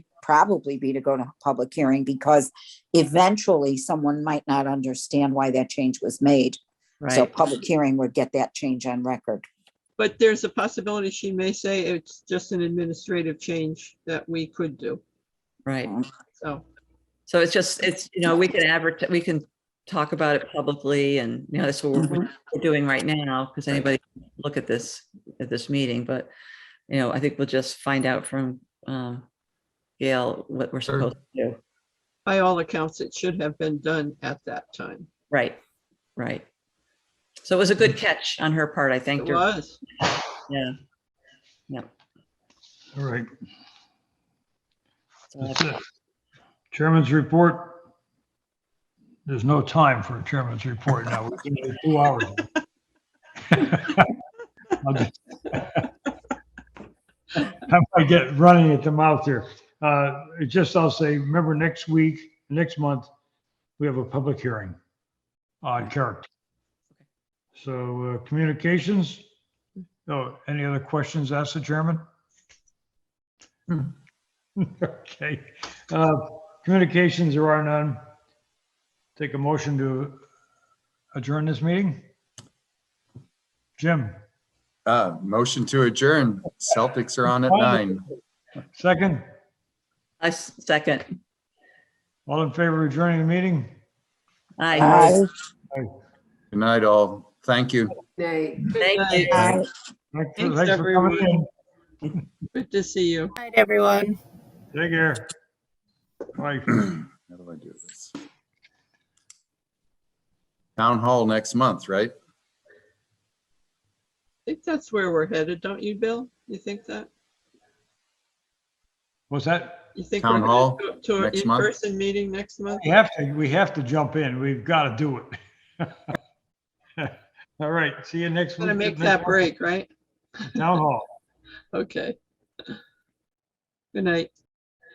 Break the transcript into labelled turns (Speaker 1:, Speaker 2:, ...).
Speaker 1: probably be to go to public hearing because eventually someone might not understand why that change was made. So
Speaker 2: right?
Speaker 1: public hearing would get that change on record.
Speaker 3: But there's a possibility she may say it's just an administrative change that we could do.
Speaker 2: Right.
Speaker 3: So,
Speaker 2: So it's just, it's, you know, we can advertise, we can talk about it publicly and, you know, that's what
Speaker 1: Mm-hmm.
Speaker 2: we're we're doing right now, because anybody can look at this, at this meeting, but, you know, I think we'll just find out from um, Gail what we're
Speaker 4: Sure.
Speaker 2: supposed to do.
Speaker 3: by all accounts, it should have been done at that time.
Speaker 2: Right, right. So it was a good catch on her part, I
Speaker 3: It
Speaker 2: thanked her.
Speaker 3: was.
Speaker 2: Yeah.
Speaker 4: All right,
Speaker 2: So
Speaker 4: that's
Speaker 2: that's-
Speaker 4: it. Chairman's report. There's no time for a chairman's report now. We're gonna do two hours. I'll just- I might get running at the mouth here. Uh, it's just, I'll say, remember next week, next month, we have a public hearing on character. So uh, communications, oh, any other questions asked the chairman? Okay, uh, communications, there are none. Take a motion to adjourn this meeting? Jim,
Speaker 5: Uh, motion to adjourn. Celtics are on at nine.
Speaker 4: second,
Speaker 2: I s- second.
Speaker 4: all in favor of adjourning the meeting?
Speaker 2: Aye.
Speaker 5: Good night, all. Thank you.
Speaker 2: Thank you.
Speaker 1: Aye.
Speaker 4: Thanks
Speaker 3: Thanks,
Speaker 4: thanks for coming in.
Speaker 3: Good to see you.
Speaker 6: night, everyone.
Speaker 4: Take care. Bye.
Speaker 5: How do I do this? Town hall next month, right?
Speaker 3: I think that's where we're headed, don't you, Bill? You think that?
Speaker 4: Was that,
Speaker 3: You think
Speaker 5: Town
Speaker 3: we're
Speaker 5: hall
Speaker 3: headed to- to an
Speaker 5: next month?
Speaker 3: in-person meeting next month?
Speaker 4: we have to, we have to jump in. We've got to do it. All right, see you next week.
Speaker 3: Gonna make that break, right?
Speaker 4: Town hall.
Speaker 3: Okay. Good night.